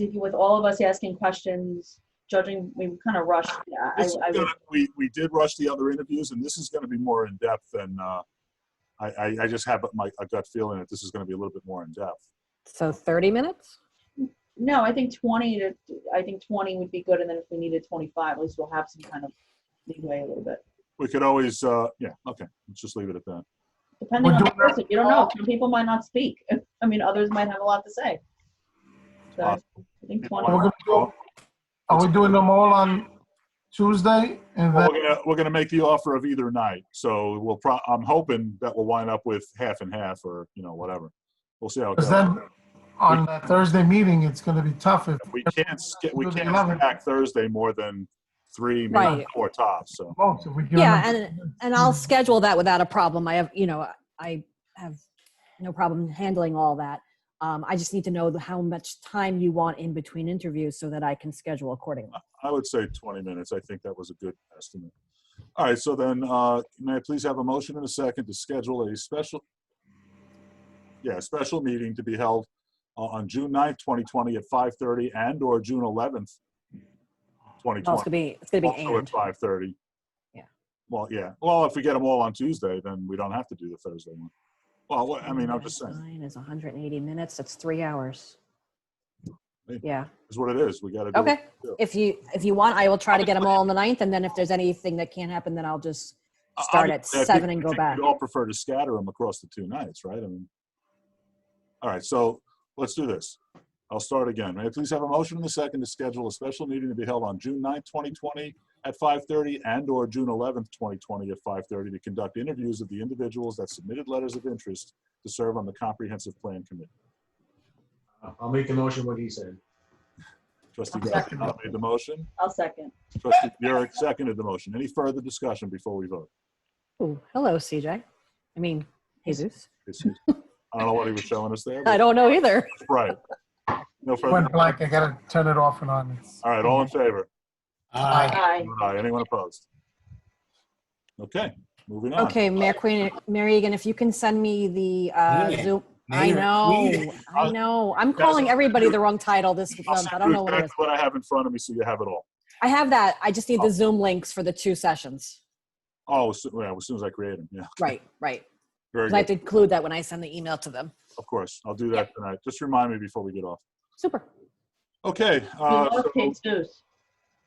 if you- with all of us asking questions, judging, we kind of rushed. Yeah, I, This is I would, gonna- We, we did rush the other interviews, and this is going to be more in-depth than, uh, I, I, I just have my, a gut feeling that this is going to be a little bit more in-depth. So 30 minutes? no, I think twenty to, I think twenty would be good, and then if we needed twenty-five, at least we'll have some kind of leeway a little bit. We could always, uh, yeah, okay, let's just leave it at that. Depending We're on the doing that- person, you don't know, some people might not speak, I mean, others might have a lot to say. So, I think People twenty. We're wanna- gonna go- Are we doing them all on Tuesday? And We're then, gonna, we're gonna make the offer of either night, so we'll pro, I'm hoping that we'll wind up with half and half, or, you know, whatever. We'll see how it because goes. then on the Thursday meeting, it's gonna be tough if We can't, sk- we Do the can't 11. stack Thursday more than three, maybe Right. four tops, so. votes. If we give Yeah, them- And I'll schedule that without a problem. I have, you know, I have no problem handling all that. Um, I just need to know how much time you want in between interviews so that I can schedule accordingly. I would say 20 minutes. I think that was a good estimate. All right, so then, uh, may I please have a motion and a second to schedule a special, yeah, a special meeting to be held uh, on June 9th, 2020 at 5:30 and/or June 11th, Oh, it's gonna 2020. be, it's gonna be Also at and. 5:30. Yeah. Well, yeah. Well, if we get them all on Tuesday, then we don't have to do the Thursday one. Well, what- I mean, I'm just saying, Nine is 180 minutes. That's three hours. Hey. Yeah, it's what it is. We got to do it. okay. If you, if you want, I will try to get them all on the ninth and then if there's anything that can't happen, then I'll just I- start I- at I think- seven I and go think back. We'd all prefer to scatter them across the two nights, right? I mean, all right, so let's do this. I'll start again. May I please have a motion in the second to schedule a special meeting to be held on June 9th, 2020 at 5:30 and/or June 11th, 2020 at 5:30 to conduct interviews of the individuals that submitted letters of interest to serve on the Comprehensive Plan Committee. I'll make the motion what he said. Trustee Giacomo made the motion. I'll second. Trustee Burek seconded the motion. Any further discussion before we vote? Ooh, hello, CJ. I mean, Jesus. It's- I don't know what he was showing us there. I but don't know either. it's Right. No further. Went blank, I gotta turn it off and on. All right, all in Mm-hmm. favor? Aye. Aye. Aye. Anyone opposed? Okay, moving on. Okay, Mayor Queen, Mary Egan, if you can send me the uh, Mayor, Zoom. I Mayor, know, Queen. I know. I'm Guys, calling I'll everybody do- the wrong title this I'll month. send I don't you know what it is. exactly What I have in front of me, so you have it all. I have that. I just need Oh. the Zoom links for the two sessions. Oh, so- yeah, as soon as I create them, yeah. Right, right. Very 'Cause I have good, to include that when I send the email to them. of course. I'll do that tonight. Just remind me before we get off. Super. Okay, We uh, Mm-hmm. lost so- Jesus.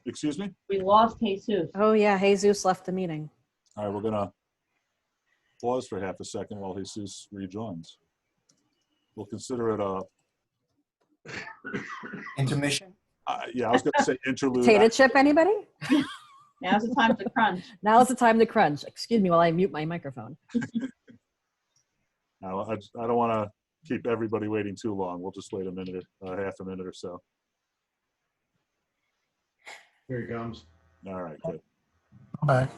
excuse me? We lost Jesus. Oh, yeah, Jesus left the meeting. All right, we're gonna pause for half a second while Jesus rejoins. We'll consider it a, Intermission? I- uh, yeah, I was gonna say interlude. Potato chip, anybody? Now's the time to crunch. Now is the time to crunch. Excuse me while I mute my microphone. I, I just- I don't want to keep everybody waiting too long. We'll just wait a minute, uh, half a minute or so. Here he comes. All right, good. I'm back.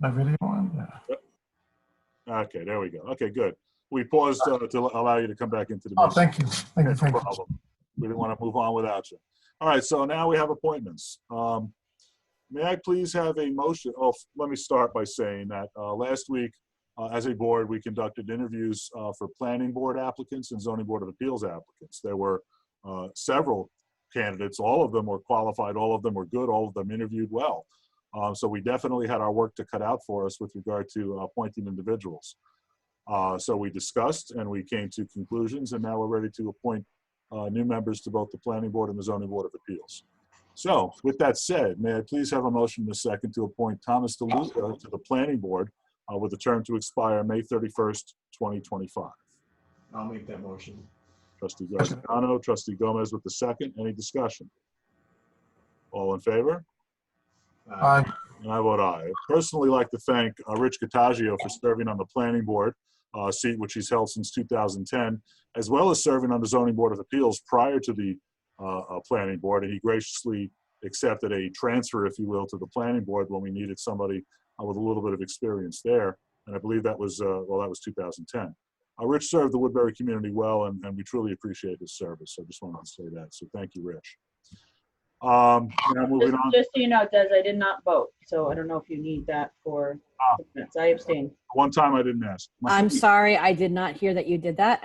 My video on, yeah. Okay, there we go. Okay, good. We paused uh, to allow you to come back into the. Oh, meeting. thank you, thank you, No thank you. problem. We didn't want to move on without you. All right, so now we have appointments. Um, May I please have a motion, oh, f- let me start by saying that uh, last week, uh, as a board, we conducted interviews uh, for planning board applicants and zoning board of appeals applicants. There were uh, several candidates, all of them were qualified, all of them were good, all of them interviewed well. Uh, So we definitely had our work to cut out for us with regard to uh, appointing individuals. Uh, So we discussed and we came to conclusions, and now we're ready to appoint uh, new members to both the Planning Board and the Zoning Board of Appeals. So with that said, may I please have a motion in a second to appoint Thomas DeLuca to the Planning Board uh, with a term to expire May 31st, 2025? I'll make that motion. Trustee Graziano, Trustee Gomez with the second. Any discussion? All in favor? Uh, Aye. And I vote aye. I'd Personally, like to thank uh, Rich Cottagio for serving on the planning board, uh, seat which he's held since 2010, as well as serving on the zoning board of appeals prior to the uh, uh, planning board. And he graciously accepted a transfer, if you will, to the planning board when we needed somebody uh, with a little bit of experience there. And I believe that was, uh, well, that was 2010. Uh, Rich served the Woodbury community well, and, and we truly appreciate his service. So I just wanted to say that. So thank you, Rich. Um, now Just moving on. just so you know, Des, I did not vote, so I don't know if you need that for, Ah. I abstained. One time I didn't ask. My- I'm sorry, I did not hear that you did that.